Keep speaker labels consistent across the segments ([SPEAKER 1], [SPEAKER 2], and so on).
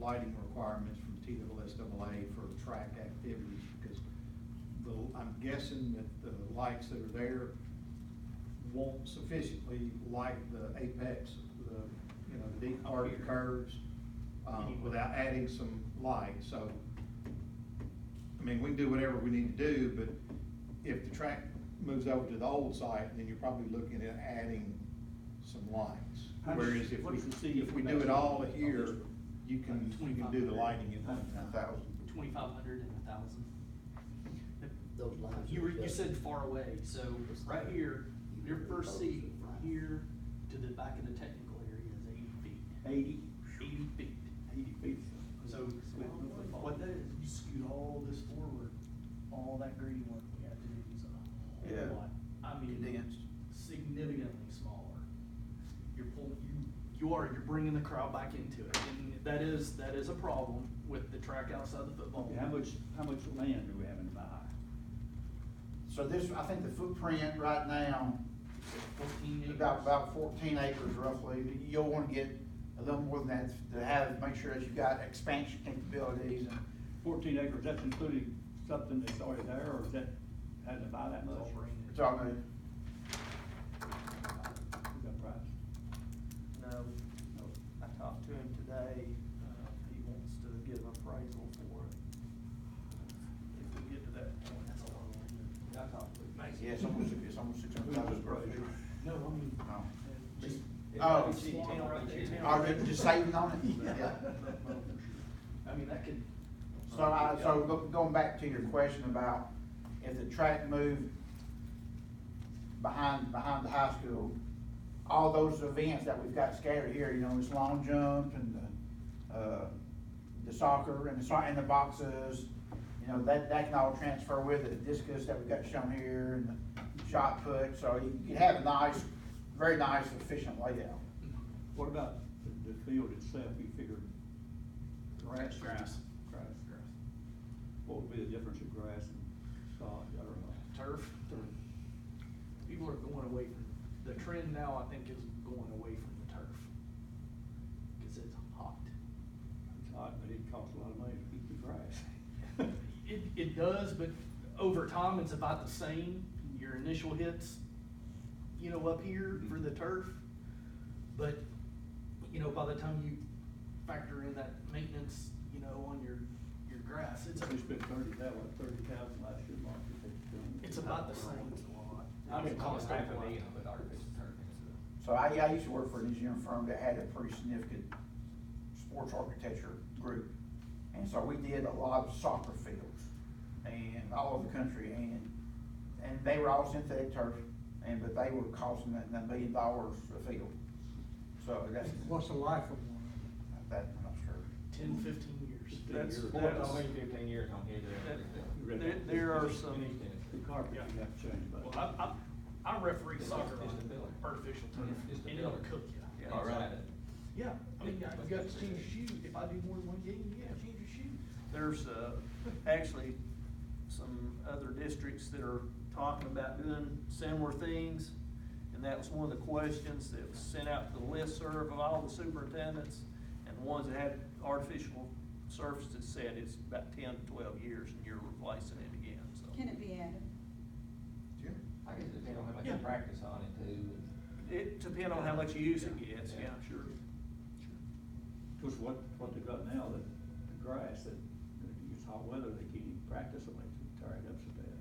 [SPEAKER 1] lighting requirements from TWSAA for track activities, because the, I'm guessing that the lights that are there won't sufficiently light the apex, the, you know, the deep part of the curves, um, without adding some light, so, I mean, we can do whatever we need to do, but if the track moves over to the old site, then you're probably looking at adding some lights.
[SPEAKER 2] How does-
[SPEAKER 1] Whereas if
[SPEAKER 2] what
[SPEAKER 1] we,
[SPEAKER 2] does the city
[SPEAKER 1] if we do
[SPEAKER 2] actually
[SPEAKER 1] it all
[SPEAKER 2] do on
[SPEAKER 1] here,
[SPEAKER 2] this one?
[SPEAKER 1] you can, you can do the lighting at one time.
[SPEAKER 3] thousand.
[SPEAKER 2] Twenty-five hundred and a thousand.
[SPEAKER 4] Those lines
[SPEAKER 2] You were,
[SPEAKER 4] are
[SPEAKER 2] you
[SPEAKER 4] just-
[SPEAKER 2] said far away, so right here, your first seat here to the back of the technical area is eighty feet.
[SPEAKER 3] Eighty,
[SPEAKER 2] Eighty feet.
[SPEAKER 3] eighty feet.
[SPEAKER 2] So what that is, you scoot all this forward, all that grading work we have to do is a
[SPEAKER 3] Yeah.
[SPEAKER 2] whole lot. I mean,
[SPEAKER 3] Condensed.
[SPEAKER 2] significantly smaller. You're pulling, you, you are, you're bringing the crowd back into it. And that is, that is a problem with the track outside the football.
[SPEAKER 3] Okay, How much, how much land do we have in Baha'i?
[SPEAKER 5] So this, I think the footprint right now
[SPEAKER 2] Fourteen
[SPEAKER 5] is
[SPEAKER 2] acres.
[SPEAKER 5] about, about fourteen acres roughly. You'll wanna get a little more than that to have, make sure that you've got expansion capabilities and
[SPEAKER 3] Fourteen acres, that's including something that's already there, or is that, had to buy that much?
[SPEAKER 2] It's all brand
[SPEAKER 5] we're talking about
[SPEAKER 3] Is that price?
[SPEAKER 2] No, no, I talked to him today, uh, he wants to get an appraisal for it. If we get to that point, that's all I want to. I talked to him.
[SPEAKER 5] Yeah, it's almost, it's almost six hundred thousand square feet. Um,
[SPEAKER 2] No, I mean.
[SPEAKER 5] No.
[SPEAKER 2] uh, just-
[SPEAKER 5] Oh.
[SPEAKER 2] Town right there.
[SPEAKER 5] Are they just saving on it?
[SPEAKER 2] Yeah.
[SPEAKER 5] Yeah.
[SPEAKER 2] I mean, that could.
[SPEAKER 5] So I, so go- going back to your question about if the track moved behind, behind the high school, all those events that we've got scattered here, you know, this long jump and the, uh, the soccer and the, so- and the boxes, you know, that, that can all transfer with it, the discus that we've got shown here and the shot put, so you you have a nice, very nice efficient layout.
[SPEAKER 3] What about the, the field itself, you figured?
[SPEAKER 2] Grass. Grass.
[SPEAKER 3] Grass. Grass. What would be the difference in grass and sod, I don't know.
[SPEAKER 2] Turf. People are going away from, the trend now, I think, is going away from the turf. Cause it's hot.
[SPEAKER 3] It's hot, but it costs a lot of money to keep the grass.
[SPEAKER 2] It, it does, but over time, it's about the same, your initial hits, you know, up here for the turf. But, you know, by the time you factor in that maintenance, you know, on your, your grass, it's,
[SPEAKER 3] We spent thirty, that was thirty thousand last year, Mark. if it's, um,
[SPEAKER 2] it's about the same. I mean, cost of it.
[SPEAKER 5] So I, I used to work for an engineering firm that had a pretty significant sports architecture group. And so we did a lot of soccer fields and all over the country and, and they were all synthetic turf. And, but they were costing a a million dollars a field. So that's,
[SPEAKER 6] What's the life of one?
[SPEAKER 5] that, I'm not sure.
[SPEAKER 2] Ten, fifteen years.
[SPEAKER 3] Fifteen
[SPEAKER 7] That's,
[SPEAKER 3] years.
[SPEAKER 7] that's only fifteen years on here.
[SPEAKER 3] You read
[SPEAKER 2] There-
[SPEAKER 3] that.
[SPEAKER 2] there are
[SPEAKER 3] You
[SPEAKER 2] some-
[SPEAKER 3] finished that. The carpet you have to change, but.
[SPEAKER 2] Well, I, I, I referee soccer on artificial turf,
[SPEAKER 7] It's the
[SPEAKER 2] and it'll
[SPEAKER 7] building.
[SPEAKER 2] cook you.
[SPEAKER 7] All right.
[SPEAKER 2] Yeah, I mean, I got to change your shoe, if I do more than one game, yeah, change your shoe.
[SPEAKER 8] There's, uh, actually some other districts that are talking about doing similar things. And that was one of the questions that was sent out to the listserv of all the superintendents and the ones that had artificial surfaces said it's about ten to twelve years and you're replacing it again, so.
[SPEAKER 9] Can it be added?
[SPEAKER 5] Jim?
[SPEAKER 7] I guess it depends on how much
[SPEAKER 2] Yeah.
[SPEAKER 7] you practice on it too.
[SPEAKER 8] It depends on how much use it
[SPEAKER 7] Yeah.
[SPEAKER 8] gets,
[SPEAKER 7] Yeah.
[SPEAKER 8] yeah, sure.
[SPEAKER 3] Cause what, what they've got now, the, the grass, that, that it's hot weather, they can't even practice on it, they tear it up so bad.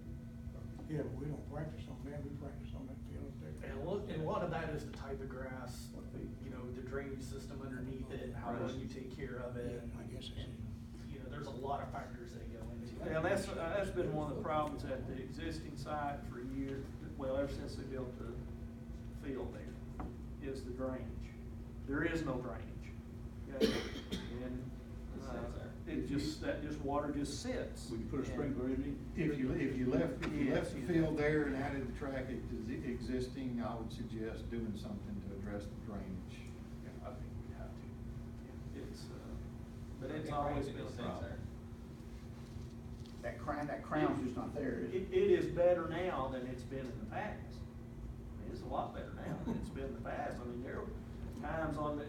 [SPEAKER 6] Yeah, but we don't practice on that, we practice on that field up there.
[SPEAKER 2] And a lot, and a lot of that is the type of grass,
[SPEAKER 3] What they-
[SPEAKER 2] you know, the drainage system underneath it, how well you take care of it.
[SPEAKER 6] Yeah, I guess it's-
[SPEAKER 2] and, You know, there's a lot of factors that go into it.
[SPEAKER 8] Yeah, that's, uh, that's been one of the problems at the existing site for years, well, ever since they built the field there, is the drainage. There is no drainage. okay? And,
[SPEAKER 7] It
[SPEAKER 8] uh,
[SPEAKER 7] sits there.
[SPEAKER 8] it just, that just, water just sits.
[SPEAKER 3] Would you put a sprinkler in it?
[SPEAKER 1] If you, if you left, if you left
[SPEAKER 8] Yes.
[SPEAKER 1] the field there and added the track ex- existing, I would suggest doing something to address the drainage.
[SPEAKER 8] Yeah, I think we'd have to. It's, uh, but
[SPEAKER 7] I
[SPEAKER 8] it's
[SPEAKER 7] think
[SPEAKER 8] always
[SPEAKER 7] rain
[SPEAKER 8] been a
[SPEAKER 7] sits
[SPEAKER 8] problem.
[SPEAKER 7] there.
[SPEAKER 5] That crown, that crown's just not there. is it?
[SPEAKER 8] It, it is better now than it's been in the past. I mean, It's a lot better now than it's been in the past. I mean, there were times on the,